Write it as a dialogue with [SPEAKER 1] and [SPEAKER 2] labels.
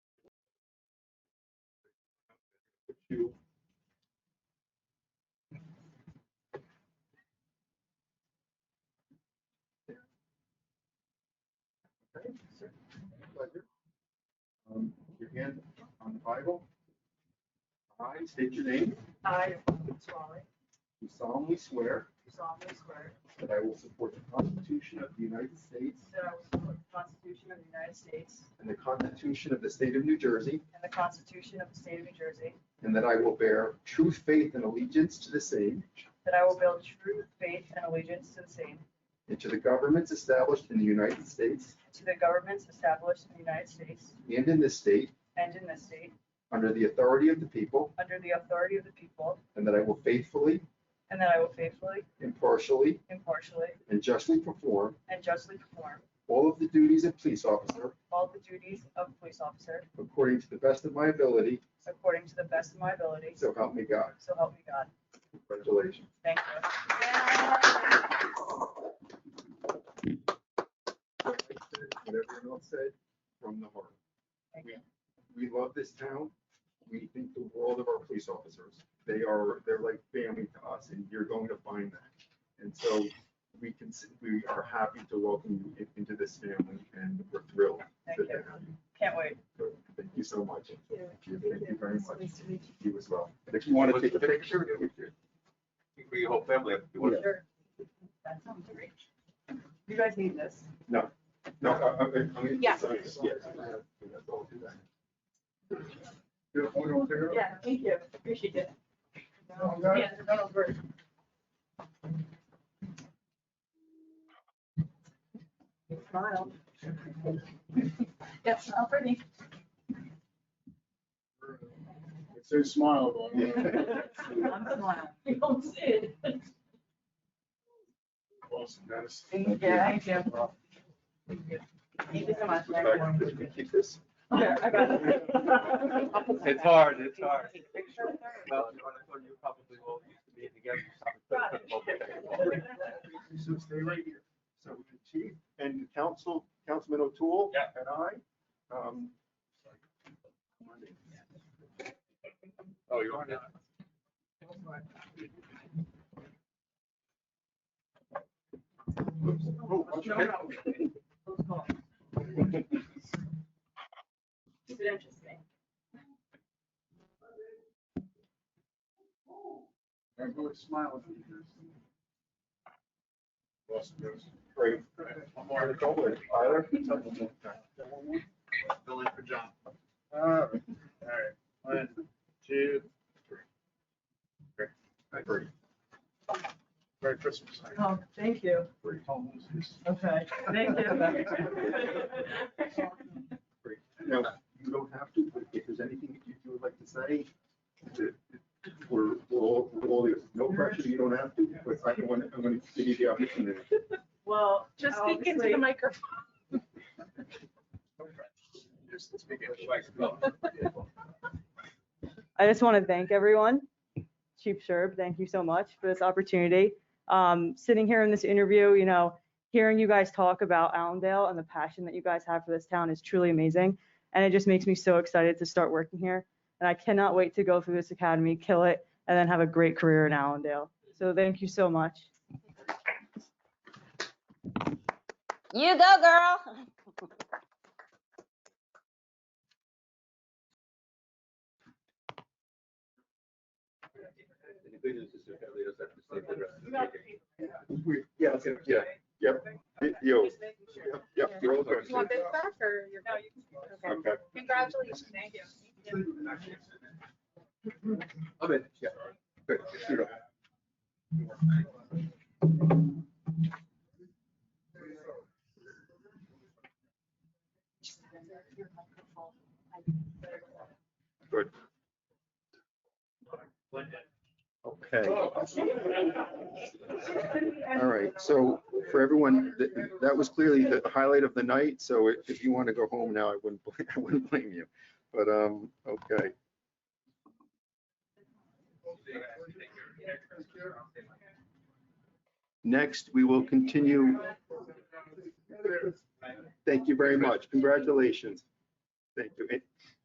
[SPEAKER 1] you. Okay, sir. Pleasure. Um, put Your hand on the Bible. I state your name.
[SPEAKER 2] I, Robert Swally,
[SPEAKER 1] You solemnly swear
[SPEAKER 2] do solemnly swear
[SPEAKER 1] that I will support the Constitution of the United States
[SPEAKER 2] that I will support the Constitution of the United States
[SPEAKER 1] and the Constitution of the State of New Jersey,
[SPEAKER 2] and the Constitution of the State of New Jersey,
[SPEAKER 1] and that I will bear true faith and allegiance to the same
[SPEAKER 2] that I will build true faith and allegiance to the same,
[SPEAKER 1] and to the governments established in the United States
[SPEAKER 2] and to the governments established in the United States
[SPEAKER 1] and in this state
[SPEAKER 2] and in this state,
[SPEAKER 1] under the authority of the people,
[SPEAKER 2] under the authority of the people,
[SPEAKER 1] and that I will faithfully,
[SPEAKER 2] and that I will faithfully,
[SPEAKER 1] impartially,
[SPEAKER 2] impartially,
[SPEAKER 1] and justly perform
[SPEAKER 2] and justly perform
[SPEAKER 1] all of the duties of police officer
[SPEAKER 2] all the duties of police officer
[SPEAKER 1] according to the best of my ability,
[SPEAKER 2] according to the best of my ability,
[SPEAKER 1] so help me God.
[SPEAKER 2] so help me God.
[SPEAKER 1] Congratulations.
[SPEAKER 2] Thank you.
[SPEAKER 1] What everyone else said, from the heart.
[SPEAKER 2] Thank
[SPEAKER 1] We- We love this town. We think the world of our police officers. They are, they're like family to us, and you're going to find that. And so we can, s- we are happy to welcome you in- into this family, and we're thrilled
[SPEAKER 2] Thank
[SPEAKER 1] that
[SPEAKER 2] you.
[SPEAKER 1] they have you.
[SPEAKER 2] Can't wait.
[SPEAKER 1] So Thank you so much.
[SPEAKER 3] Yeah.
[SPEAKER 1] Thank you. Thank you very much.
[SPEAKER 3] Nice to meet
[SPEAKER 1] You as well. And If you want to
[SPEAKER 4] What's
[SPEAKER 1] take a
[SPEAKER 4] the picture?
[SPEAKER 1] picture, we could.
[SPEAKER 4] for your whole family. if you want.
[SPEAKER 2] Sure. That sounds great. You guys need this.
[SPEAKER 1] No, uh, I, I, I'm. gonna-
[SPEAKER 3] Yeah.
[SPEAKER 1] Yes. I'll do that. You have one over there?
[SPEAKER 2] Yeah, thank you. Appreciate it.
[SPEAKER 1] No, no.
[SPEAKER 2] Yeah, no, no, great. Smile. Yes, I'm pretty.
[SPEAKER 5] It's so smile.
[SPEAKER 1] Yeah.
[SPEAKER 2] I'm smiling.
[SPEAKER 3] You don't see it.
[SPEAKER 5] Awesome, guys.
[SPEAKER 2] Thank you. Thank you. Thank you so much.
[SPEAKER 1] Would you like- would you Keep this.
[SPEAKER 2] Yeah, I got it.
[SPEAKER 4] It's hard, it's hard.
[SPEAKER 2] Thank
[SPEAKER 4] Well, you wanna go, you probably will used to be together. so I'm gonna put them both together.
[SPEAKER 1] So stay right here. So the chief and council, Councilman O'Toole.
[SPEAKER 4] Yeah.
[SPEAKER 1] And I, um.
[SPEAKER 4] Oh, you're on it.
[SPEAKER 1] oops. Oh, watch your head.
[SPEAKER 2] Keep it interesting.
[SPEAKER 5] I'm going to smile. if you do. Awesome, guys.
[SPEAKER 1] Great.
[SPEAKER 5] One more.
[SPEAKER 1] Tyler. Tyler.
[SPEAKER 5] Fill in for John. All
[SPEAKER 1] Uh,
[SPEAKER 5] right, one, two, three. Great.
[SPEAKER 1] Great.
[SPEAKER 5] Merry Christmas.
[SPEAKER 2] Oh, thank you.
[SPEAKER 5] Great.
[SPEAKER 2] Okay, thank
[SPEAKER 3] you.
[SPEAKER 1] Great. Now, you don't have to, but if there's anything that you you would like to say, that- that we're, we're all, we're all, ears. no pressure, you don't have to, but I want, I'm going to give you the opportunity.
[SPEAKER 2] Well,
[SPEAKER 3] Just speak into the microphone.
[SPEAKER 4] Just speak it, like, go.
[SPEAKER 6] I just want to thank everyone. Chief Sherb, thank you so much for this opportunity. Um, sitting here in this interview, you know, hearing you guys talk about Allendale and the passion that you guys have for this town is truly amazing. And it just makes me so excited to start working here. And I cannot wait to go through this academy, kill it, and then have a great career in Allendale. So thank you so much.
[SPEAKER 7] You go, girl.
[SPEAKER 4] The good news is that they don't have to stay for the rest of the meeting.
[SPEAKER 1] We- Yeah, yeah, yep, y- yo,
[SPEAKER 2] Just making sure.
[SPEAKER 1] yep, yep, you're all good.
[SPEAKER 3] You want this back or your?
[SPEAKER 2] No, you can-
[SPEAKER 3] Okay.
[SPEAKER 1] Okay.
[SPEAKER 3] Congratulations. Thank you.
[SPEAKER 1] I'm in, yeah. Good, shoot up. Okay. All right, so for everyone, th- that was clearly the highlight of the night, so if- if you want to go home now, I wouldn't, bl- I wouldn't blame you. But, um, okay, next, we will continue. Thank you very much, congratulations. Thank you.